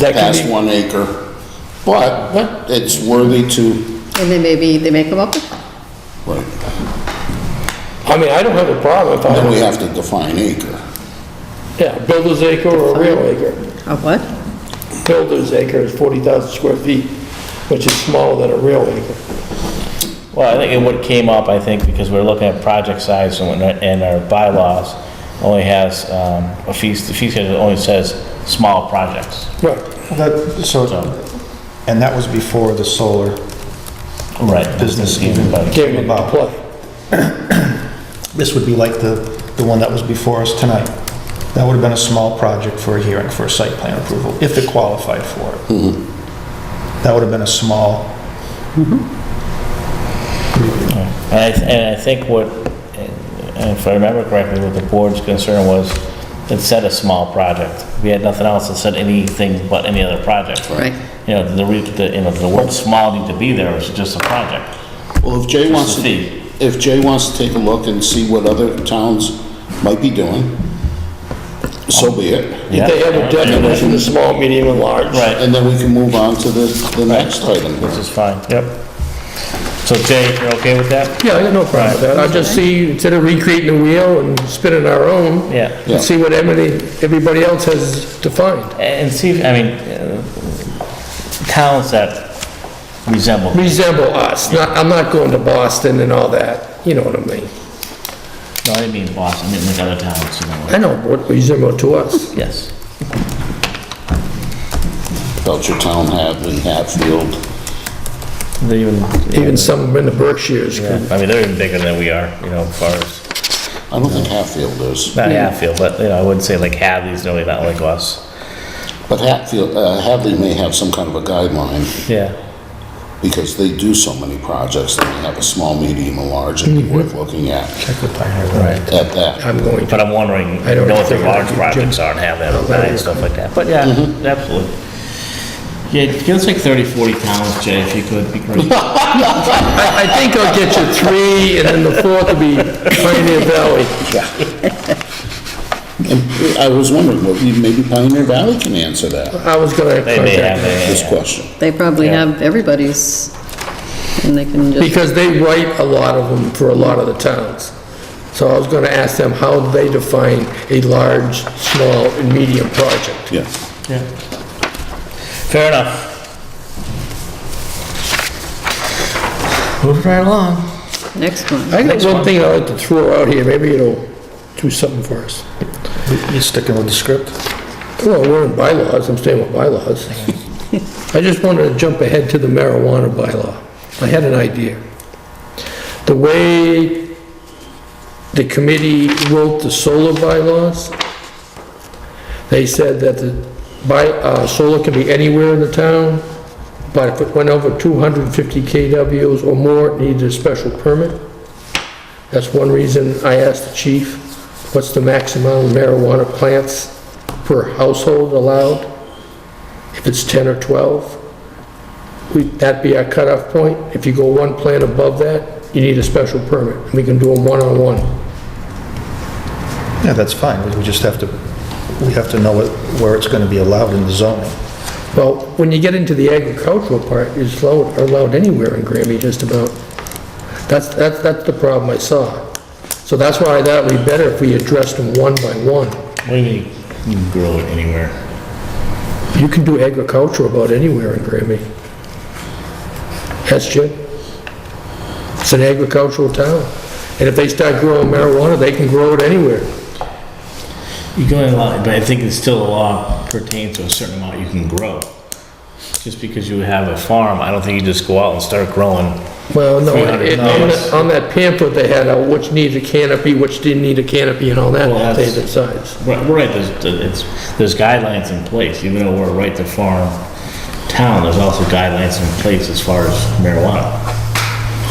That can past be- one acre. But, but it's worthy to, And then maybe they make them up? right, I mean, I don't have a problem if then we I, have to define acre. yeah, builder's acre or real acre. A what? Builder's acre is 40,000 square feet, which is smaller than a real acre. Well, I think it what came up, I think, because we're looking at project size and whatnot, and our bylaws only has, um, a fee, the fee schedule only says small projects. Right. That, so, and that was before the solar Right. business even Came came into about. play. This would be like the, the one that was before us tonight. That would have been a small project for a hearing for a site plan approval, if it qualified for it. That would have been a small, And I, and I think what, and if I remember correctly, what the board's concern was, it said a small project. We had nothing else that said anything but any other project. Right. You know, the, re- the, you know, the word small need to be there, it's just a project. Well, if Jay wants to, fee. if Jay wants to take a look and see what other towns might be doing, so be it. Yeah. They have a definition of small, medium, and large. Right. And then we can move on to the, the next Which item. is fine, yep. So Jay, you're okay with that? Yeah, I got no problem with that. I just see, instead of recreating the wheel and spinning our own. Yeah. Yeah. And see what everybody, everybody else has defined. And see, if- I mean, uh, towns that resemble, no, Resemble us, not, I'm not going to Boston and all that, you know what I mean? I didn't mean Boston, I meant like other towns, you know, I know what resemble to us. yes. Belcher Town, Hadley, Hatfield. They even, Even some in the Berkshires yeah, could I mean, they're even bigger than we are, you know, as far as, I don't think Hatfield is, not Yeah. Hatfield, but, you know, I wouldn't say like Hadley's really not like us. but Hatfield, uh, Hadley may have some kind of a guideline Yeah. because they do so many projects that they have a small, medium, and large and be worth looking at, Mm-hmm. check with Pioneer Valley. Right. at that. I'm going to. But I'm wondering, I don't know if think their I large could projects aren't have that, and stuff like that, but yeah, absolutely. Yeah, give us like 30, 40 towns, Jay, if you could, be great. I, I think I'll get you three, and then the fourth will be Pioneer Valley. And I was wondering, well, maybe Pioneer Valley can answer that, I was gonna They may have, contact them. they this question. They probably Yeah. have everybody's, and they can just, Because they write a lot of them for a lot of the towns. So I was gonna ask them how they define a large, small, and medium project. Yeah. Fair enough. Moving right along. next one. I got one thing I'd like to throw out here, maybe it'll do something for us. You sticking with the script? Well, we're in bylaws, I'm staying with bylaws. I just wanted to jump ahead to the marijuana bylaw. I had an idea. The way the committee wrote the solar bylaws, they said that the by, uh, solar can be anywhere in the town, but if it went over 250 KWs or more, it needed a special permit. That's one reason I asked the chief, what's the maximum marijuana plants per household allowed? If it's 10 or 12? we That'd be our cutoff point. If you go one plant above that, you need a special permit. We can do them one-on-one. Yeah, that's fine, we we just have to, we have to know what- where it's going to be allowed in the zoning. Well, when you get into the agricultural part, it's allowed, allowed anywhere in Grammy, just about. That's, that's, that's the problem I saw. So that's why I thought it'd be better if we addressed them one by one. What do you mean, you can grow it anywhere? You can do agriculture about anywhere in Grammy. That's Jim. It's an agricultural town. And if they start growing marijuana, they can grow it anywhere. You can only allow, but I think it's still a law pertains to a certain amount you can grow. Just because you have a farm, I don't think you just go out and start growing. Well, no, it- 300 on dollars. that- on that pamphlet they had, out which needs a canopy, which didn't need a canopy and all Well, that, they that's- decide. Right, right, there's, it's, there's guidelines in place, even though we're right to farm town, there's also guidelines in place as far as marijuana.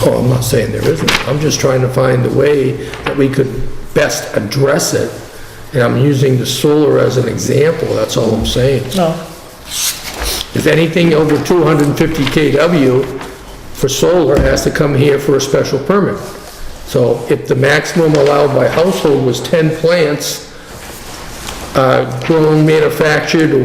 Oh, I'm not saying there isn't. I'm just trying to find the way that we could best address it. And I'm using the solar as an example, that's all I'm saying. No. If anything over 250 KW for solar has to come here for a special permit. So if the maximum allowed by household was 10 plants, uh, grown, manufactured,